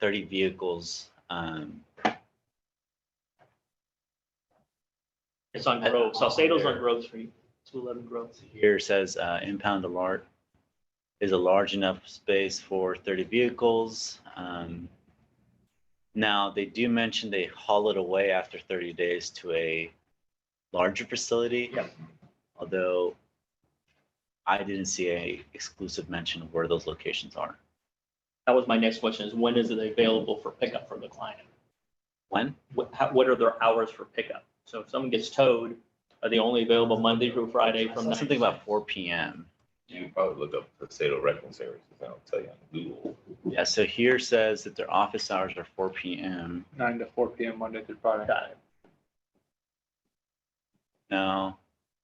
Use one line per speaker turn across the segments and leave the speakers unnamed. thirty vehicles. Um,
It's on
Uh,
Grove, Salcedo's on
there.
Grove Street, two eleven Grove.
here it says, uh, impound alert is a large enough space for thirty vehicles. Um, now, they do mention they haul it away after thirty days to a larger facility.
Yep.
Although I didn't see a exclusive mention of where those locations are.
That was my next question, is when is it available for pickup for the client?
When?
What, how, what are their hours for pickup? So if someone gets towed, are they only available Monday through Friday
I
from?
saw
nine-
Something about four P M.
You can probably look up Salcedo Wrecking Services, and I'll tell you on Google.
Yeah, so here says that their office hours are four P M.
nine to four PM, Monday through Friday.
Got it.
No,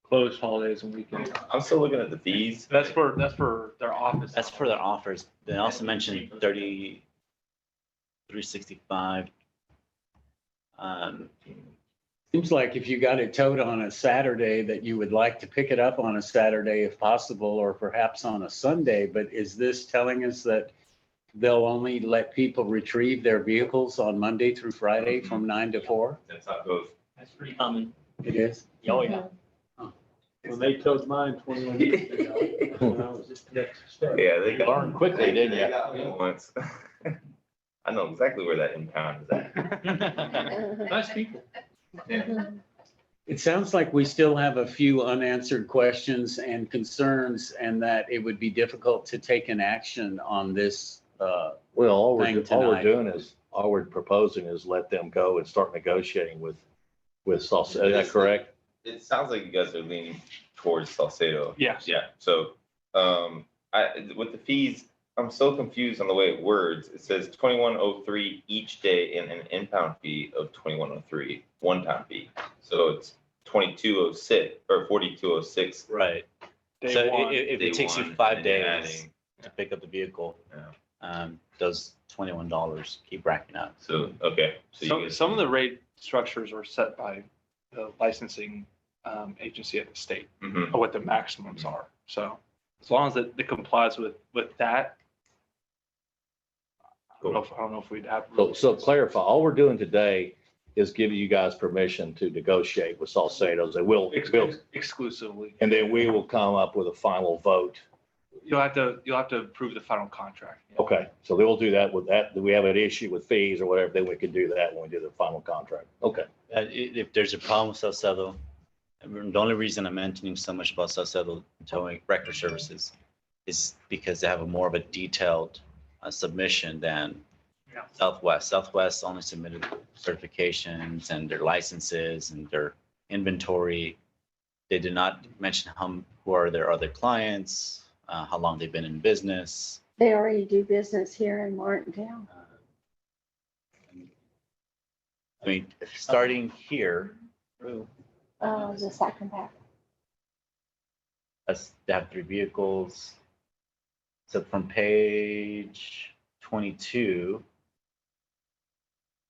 Closed holidays and weekends.
I'm still looking at the fees.
That's for, that's for their office.
that's for their offers. They also mentioned thirty, three sixty-five. Um,
Seems like if you got it towed on a Saturday, that you would like to pick it up on a Saturday if possible, or perhaps on a Sunday, but is this telling us that they'll only let people retrieve their vehicles on Monday through Friday from nine to four?
That's not those.
That's pretty common.
Mm-hmm. It is.
Um, Oh, yeah.
When they towed mine twenty-one years ago. when I was at Texas Tech.
Yeah, they got.
Learned quickly, didn't
they
you?
got me Once. I know exactly where that impound is at.
Nice people.
It sounds like we still have a few unanswered questions and concerns, and that it would be difficult to take an action on this, uh,
Well, all we're,
Thing
all
tonight.
we're doing is, all we're proposing is let them go and start negotiating with, with Salsa. Is that correct?
It sounds like you guys are leaning towards Salcedo.
Yes.
Yeah, so, um, I, with the fees, I'm so confused on the way it words. It says twenty-one oh three each day and an impound fee of twenty-one oh three, one-time fee. So it's twenty-two oh six, or forty-two oh six.
right,
Day
so i- i-
one.
if
day
it takes
one,
you
and
five
then you're
days
adding.
to pick up the vehicle,
Yeah.
um, those twenty-one dollars keep racking up.
So, okay. so you
Some,
guys-
some of the rate structures are set by the licensing um, agency at the state,
Mhm.
or what the maximums are. So as long as it it complies with, with that. I don't know if, I don't know if we'd have.
So, so clarify, all we're doing today is giving you guys permission to negotiate with Salcedo's. They will,
Ex-
will-
Exclusively.
and then we will come up with a final vote.
You'll have to, you'll have to approve the final contract.
Okay, so they will do that with that. Do we have an issue with fees or whatever? Then we can do that when we do the final contract. Okay.
Uh, i- if there's a problem with Salcedo, I mean, the only reason I'm mentioning so much about Salcedo towing record services is because they have a more of a detailed uh, submission than
Yeah.
Southwest. Southwest only submitted certifications and their licenses and their inventory. They did not mention how, m- who are their other clients, uh, how long they've been in business.
They already do business here in Martindale.
uh, and- I mean, starting here,
Uh, the second back.
That's, they have three vehicles. So from page twenty-two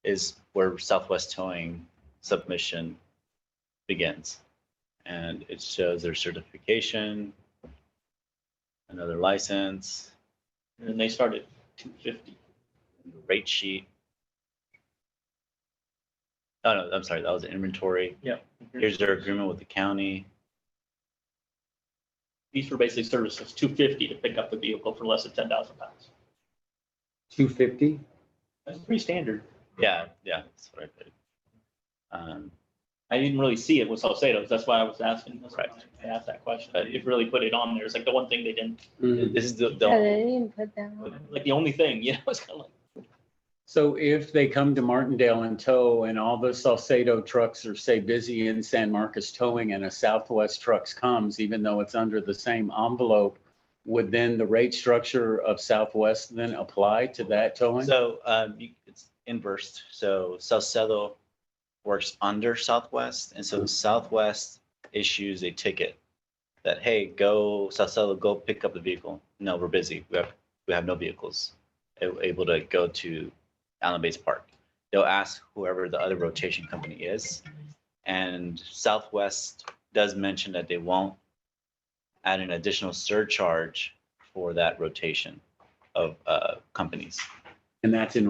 is where Southwest Towing submission begins. And it shows their certification, another license,
And then they start at two fifty.
and the rate sheet. Oh, no, I'm sorry, that was inventory. Here's their agreement with the county.
These for basic services, two fifty to pick up the vehicle for less than ten thousand pounds.
two fifty?
That's pretty standard.
Yeah, yeah, that's what I put. Um,
I didn't really see it with Salcedo's. That's why I was asking. that's why
Right.
I asked that question. They didn't really put it on there. It's like the one thing they didn't,
Mm-hmm.
this is the, the
Yeah,
only-
Oh, they didn't put that on.
like the only thing, you know, it's kind of like.
So if they come to Martindale and tow and all the Salcedo trucks are say busy in San Marcos towing and a Southwest trucks comes, even though it's under the same envelope, would then the rate structure of Southwest then apply to that towing?
So um, you- it's inverse. So Salcedo works under Southwest, and so Southwest issues a ticket that, hey, go, Salcedo, go pick up the vehicle. No, we're busy. We have, we have no vehicles a- able to go to Allen Bates Park. They'll ask whoever the other rotation company is. And Southwest does mention that they won't add an additional surcharge for that rotation of uh, companies.
And that's in